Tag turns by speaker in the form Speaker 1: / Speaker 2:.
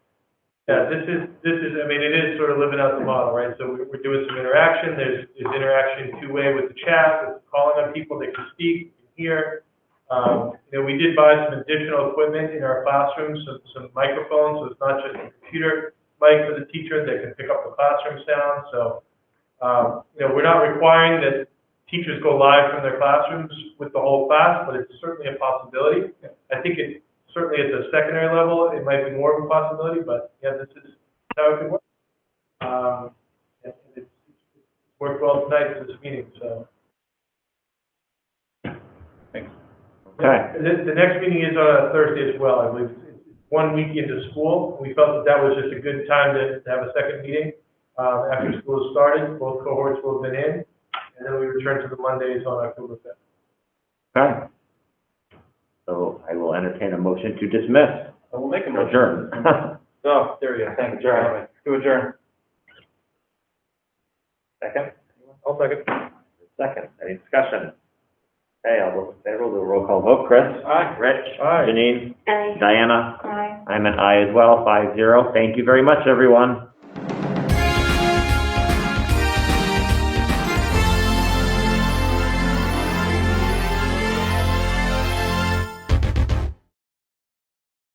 Speaker 1: Yeah, this is, this is, I mean, it is sort of living out the model, right? So we- we're doing some interaction, there's, there's interaction two-way with the chat, with calling on people that can speak, can hear. Um, you know, we did buy some additional equipment in our classrooms, some, some microphones, so it's not just a computer mic for the teacher that can pick up the classroom sound, so, um, you know, we're not requiring that teachers go live from their classrooms with the whole class, but it's certainly a possibility. I think it, certainly at the secondary level, it might be more of a possibility, but yeah, this is how it could work. Um, and it's it's worked well tonight for this meeting, so.
Speaker 2: Okay,
Speaker 1: And The, the next meeting is on a Thursday as well, I believe, It's- it's one week into school. We felt that that was just a good time to, to have a second meeting, um, after school has started, both cohorts will have been in, and then we return to the Mondays on October fifth.
Speaker 2: okay. So I will entertain a motion to dismiss,
Speaker 3: I will make a motion.
Speaker 2: adjourn.
Speaker 3: Oh, there we go, thank you, Jeremy. To adjourn. Second? I'll second.
Speaker 2: Second, any discussion? Okay, all those in favor, we'll do a roll call vote. Chris?
Speaker 3: Aye.
Speaker 2: Rich?
Speaker 3: Aye.
Speaker 2: Janine?
Speaker 4: Aye.
Speaker 2: Diana?
Speaker 4: Aye.
Speaker 2: I'm an aye as well, five zero. Thank you very much, everyone.